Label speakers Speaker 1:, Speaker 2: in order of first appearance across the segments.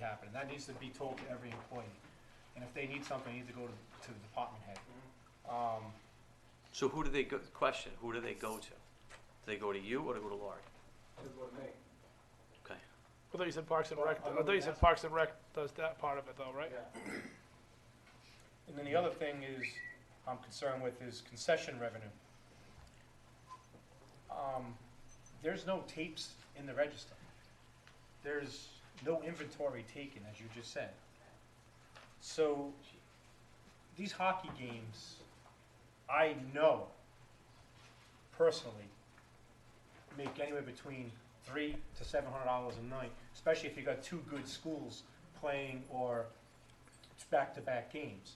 Speaker 1: happening. That needs to be told to every employee. And if they need something, they need to go to, to the department head. Um,
Speaker 2: So who do they go, question, who do they go to? Do they go to you or do they go to Laurie? Okay.
Speaker 3: I thought you said Parks and Rec,
Speaker 1: Well, I
Speaker 3: I thought you
Speaker 1: would
Speaker 3: said
Speaker 1: ask-
Speaker 3: Parks and Rec does that part of it though, right?
Speaker 1: Yeah. And then the other thing is, I'm concerned with is concession revenue. Um, there's no tapes in the register. There's no inventory taken, as you just said. So, these hockey games, I know personally, make anywhere between three to seven hundred dollars a night, especially if you got two good schools playing or back-to-back games.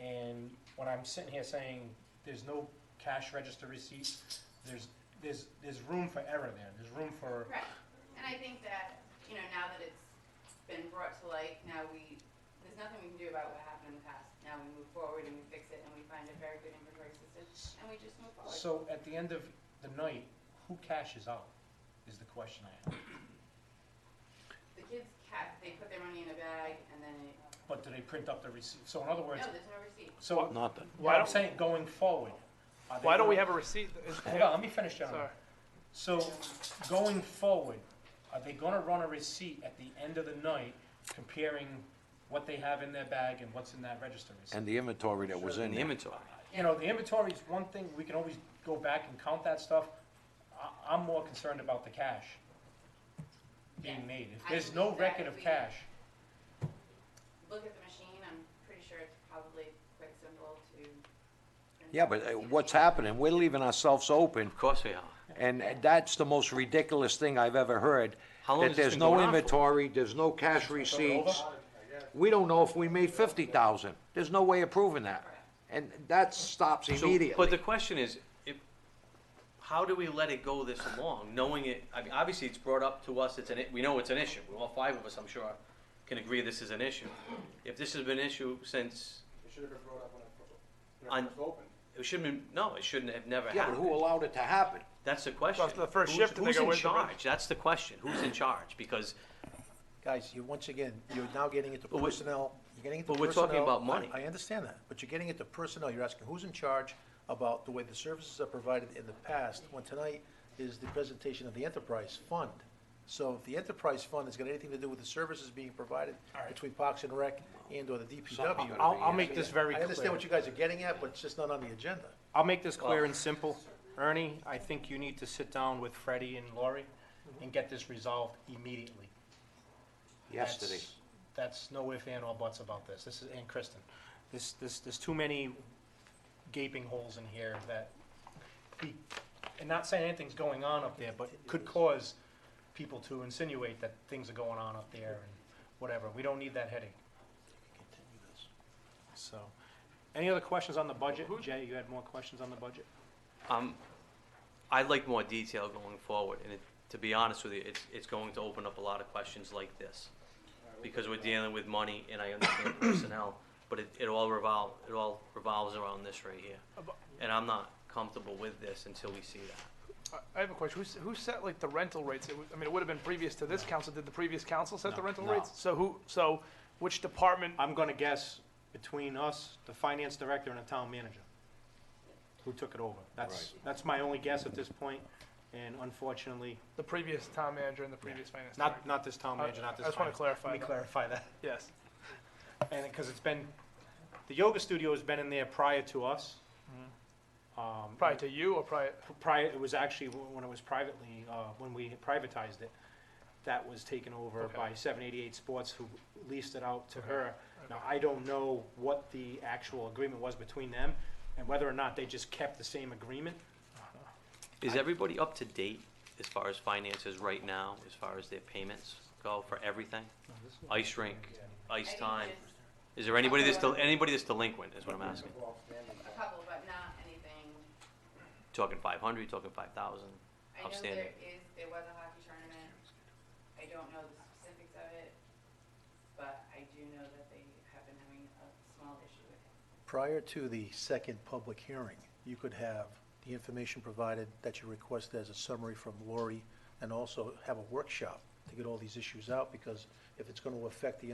Speaker 1: And when I'm sitting here saying there's no cash register receipts, there's, there's, there's room for error there. There's room for,
Speaker 4: Right, and I think that, you know, now that it's been brought to light, now we, there's nothing we can do about what happened in the past. Now we move forward and we fix it and we find a very good inventory system and we just move forward.
Speaker 1: so at the end of the night, who cashes out is the question I have.
Speaker 4: The kids cat, they put their money in a bag and then it,
Speaker 1: But do they print up the receipt? So in other words,
Speaker 4: no, there's no receipt.
Speaker 1: so
Speaker 2: Nothing.
Speaker 3: Why
Speaker 1: I'm
Speaker 3: don't,
Speaker 1: saying going forward. are they
Speaker 3: why don't we
Speaker 1: gonna-
Speaker 3: have a receipt? that is-
Speaker 1: Hold uh, on, let me finish, gentlemen.
Speaker 3: Sorry.
Speaker 1: So going forward, are they gonna run a receipt at the end of the night comparing what they have in their bag and what's in that register receipt?
Speaker 5: And the inventory that was
Speaker 2: In
Speaker 5: in
Speaker 2: the
Speaker 5: there.
Speaker 2: inventory.
Speaker 1: You know, the inventory is one thing, we can always go back and count that stuff. I, I'm more concerned about the cash being
Speaker 4: Yeah.
Speaker 1: made. If
Speaker 4: I
Speaker 1: there's no
Speaker 4: believe that
Speaker 1: record
Speaker 4: if
Speaker 1: of
Speaker 4: we-
Speaker 1: cash,
Speaker 4: Look at the machine, I'm pretty sure it's probably quite simple to.
Speaker 5: Yeah, but uh, what's happening, we're leaving ourselves open,
Speaker 2: Of course we are.
Speaker 5: and that's the most ridiculous thing I've ever heard.
Speaker 2: How long
Speaker 5: That
Speaker 2: has this
Speaker 5: there's
Speaker 2: been
Speaker 5: no
Speaker 2: going on for?
Speaker 5: inventory, there's no cash receipts. We don't know if we made fifty thousand. There's no way of proving that. And that stops
Speaker 2: So- But the
Speaker 5: immediately.
Speaker 2: question is, if, how do we let it go this long, knowing it, I mean, obviously it's brought up to us, it's an, i- we know it's an issue, we all five of us, I'm sure, can agree this is an issue. If this has been an issue since,
Speaker 6: It should have been brought up when it
Speaker 2: On-
Speaker 6: when it first opened.
Speaker 2: it shouldn't, have- no, it shouldn't have never
Speaker 5: Yeah, but who
Speaker 2: happened.
Speaker 5: allowed it to happen?
Speaker 2: That's the question.
Speaker 3: Well, the first
Speaker 2: Who's-
Speaker 3: shift, they go, "Where's the
Speaker 2: Who's in
Speaker 3: rest?"
Speaker 2: charge? That's the question, who's in charge? Because
Speaker 7: Guys, you, once again, you're now getting into
Speaker 2: But we're-
Speaker 7: personnel, you're getting into
Speaker 2: but
Speaker 7: personnel.
Speaker 2: we're talking about money.
Speaker 7: I I understand that, but you're getting into personnel, you're asking who's in charge about the way the services are provided in the past, when tonight is the presentation of the enterprise fund. So if the enterprise fund has got anything to do with the services being provided between Parks and Rec and or the DPW.
Speaker 1: I'll, I'll make this very
Speaker 7: I
Speaker 1: clear.
Speaker 7: understand what you guys are getting at, but it's just not on the agenda.
Speaker 1: I'll make this clear and simple. Ernie, I think you need to sit down with Freddie and Lori and get this resolved immediately.
Speaker 5: Yesterday.
Speaker 1: That's- That's no if, and, or buts about this. This is, and Kristen, this, this, there's too many gaping holes in here that, be- and not saying anything's going on up there, but could cause people to insinuate that things are going on up there and whatever. We don't need that headache, so. Any other questions on the budget? Jay, you had more questions on the budget?
Speaker 2: Um, I'd like more detail going forward, and it, to be honest with you, it's, it's going to open up a lot of questions like this. Because we're dealing with money, and I understand personnel, but it, it all revolve, it all revolves around this right here. And I'm not comfortable with this until we see that.
Speaker 3: I- I have a question. Who, s- who set like the rental rates? It was, I mean, it would have been previous to this council. Did the previous council set the rental
Speaker 1: no.
Speaker 3: rates? So who, so which department?
Speaker 1: I'm gonna guess between us, the finance director and the town manager, who took it over. That's, that's my only guess at this point, and unfortunately,
Speaker 3: The previous town manager and the previous finance
Speaker 1: not,
Speaker 3: director?
Speaker 1: not this town
Speaker 3: I-
Speaker 1: manager, not this.
Speaker 3: Uh, I just wanna
Speaker 1: finance-
Speaker 3: clarify
Speaker 1: Let me
Speaker 3: that.
Speaker 1: clarify that,
Speaker 3: Yes.
Speaker 1: and, because it's been, the yoga studio has been in there prior to us. Um,
Speaker 3: Prior to you or prior,
Speaker 1: prior, it was actually wh- when it was privately, uh, when we privatized it, that was taken over
Speaker 3: Okay.
Speaker 1: by seven eighty-eight Sports who leased it out to her. Now, I don't know what the actual agreement was between them and whether or not they just kept the same agreement.
Speaker 2: Is everybody up to date as far as finances right now, as far as their payments go for everything? Ice rink,
Speaker 4: I
Speaker 2: ice
Speaker 4: think
Speaker 2: time?
Speaker 4: there's
Speaker 2: Is there anybody that's, del- anybody that's delinquent, is what I'm asking?
Speaker 6: People outstanding.
Speaker 4: A couple, but not anything.
Speaker 2: Talking five hundred, talking five thousand?
Speaker 4: I know
Speaker 2: Outstanding.
Speaker 4: there is, there was a hockey tournament. I don't know the specifics of it, but I do know that they have been having a small issue with it.
Speaker 7: Prior to the second public hearing, you could have the information provided that you requested as a summary from Lori, and also have a workshop to get all these issues out, because if it's gonna affect the